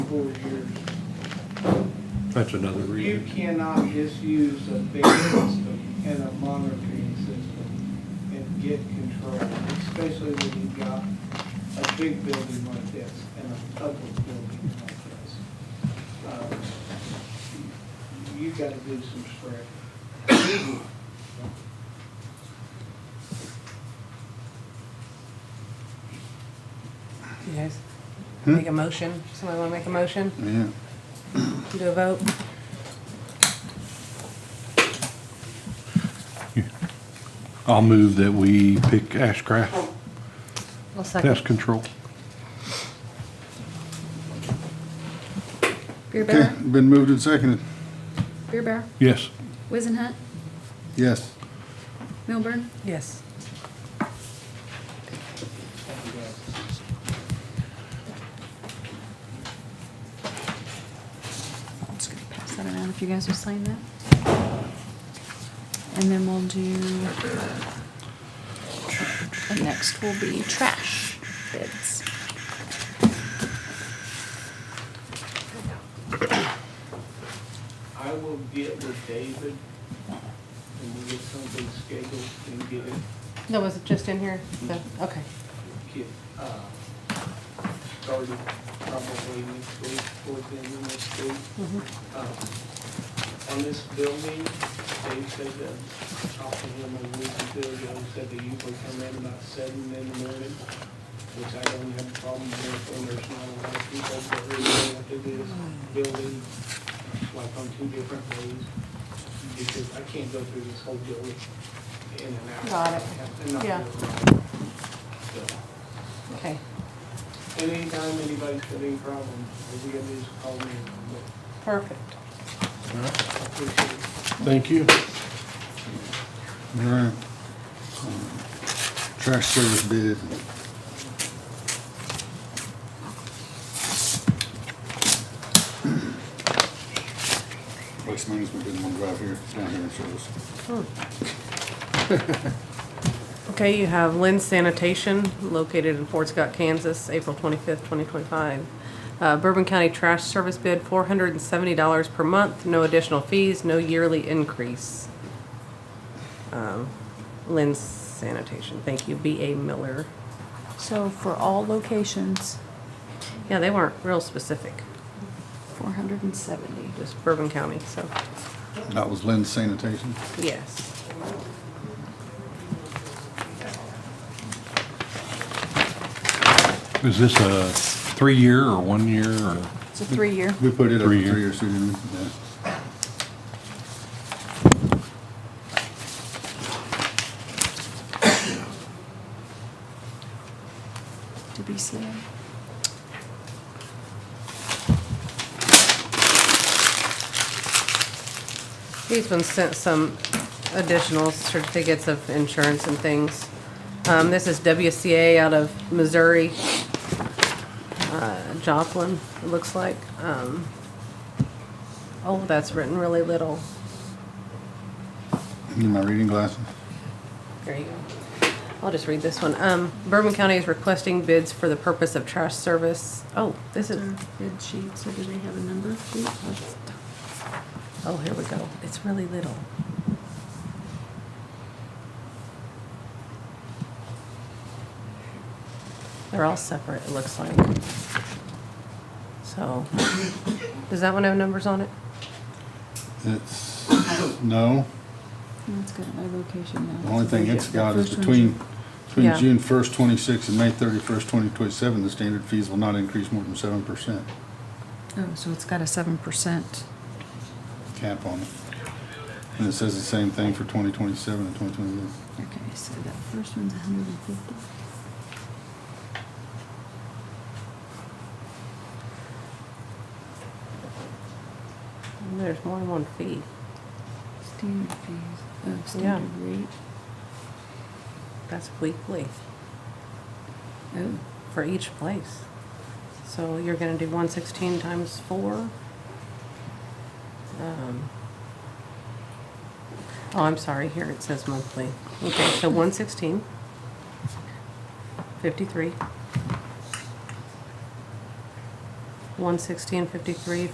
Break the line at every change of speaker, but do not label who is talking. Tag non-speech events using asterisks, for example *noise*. four years.
That's another
You
reason.
cannot just use a bid system and a monitoring system and get control, especially when you've got a big building like this and a public building like this. Um, You gotta do some spread.
You guys make a motion? Somebody want to make a motion?
Yeah.
Do a vote?
I'll move that we pick Ashcraft
I'll second.
Pest Control.
Beer
Okay,
Bear,
been moved and seconded.
Beer Bear,
Yes.
Wizenhut,
Yes.
Milburn,
Yes.
just gonna pass that around if you guys will sign that. And then we'll do, and next will be trash bids.
I will get with David and we'll get something scheduled and get it
That was just in here? The- Okay.
get, uh, started probably next week, toward the end of next week.
Mhm.
Um, Uh, On this building, they said that, talking to him a week or two ago, said they usually come in about seven in the morning, which I don't have a problem with, and there's not a lot of people that really want to do this building, like on two different ways, because I can't go through this whole building in and out.
Got it.
And not do
Yeah.
right. So.
Okay.
Anytime anybody's got any problem, if you have these, call me. and
Perfect.
I appreciate it.
Thank you.
All right. Trash service bid. Waste management didn't want to drive here, down here and show us.
Okay, you have Lynn Sanitation located in Fort Scott, Kansas, April twenty-fifth, twenty twenty-five. Uh, Bourbon County Trash Service bid, four hundred and seventy dollars per month, no additional fees, no yearly increase. Um, Lynn Sanitation, thank you, B A Miller.
So for all locations,
Yeah, they weren't real specific,
four hundred and seventy.
just Bourbon County, so,
That was Lynn's sanitation.
yes.
Is this a three-year or one-year or?
It's a three-year.
We put it up for three
Three-year.
years, so didn't we? Yeah.
Did we see him?
These ones sent some additional certificates of insurance and things. Um, this is WCA out of Missouri, uh, Joplin, it looks like. Um, oh, that's written really little.
Need my reading glasses.
There you go. I'll just read this one. Um, Bourbon County is requesting bids for the purpose of trash service. Oh, this is,
Bid sheet, so do they have a number?
oh, here we go. It's really little. They're all separate, it looks like. So, *coughs* does that one have numbers on it?
It's, no,
That's got my location now.
the only thing it's got is
First one,
between, between
Yeah.
June first, twenty-six and May thirty-first, twenty twenty-seven, the standard fees will not increase more than seven percent
Oh, so it's got a seven percent.
cap on it. And it says the same thing for twenty twenty-seven and twenty twenty-eight.
Okay, so that first one's hundred and fifty.
There's more than one fee.
Standard fees, oh,
Yeah.
standard rate.
That's weekly
Oh,
for each place. So you're gonna do one sixteen times four. Um, Oh, I'm sorry, here it says monthly. Okay, so one sixteen. Fifty-three. one sixteen fifty-three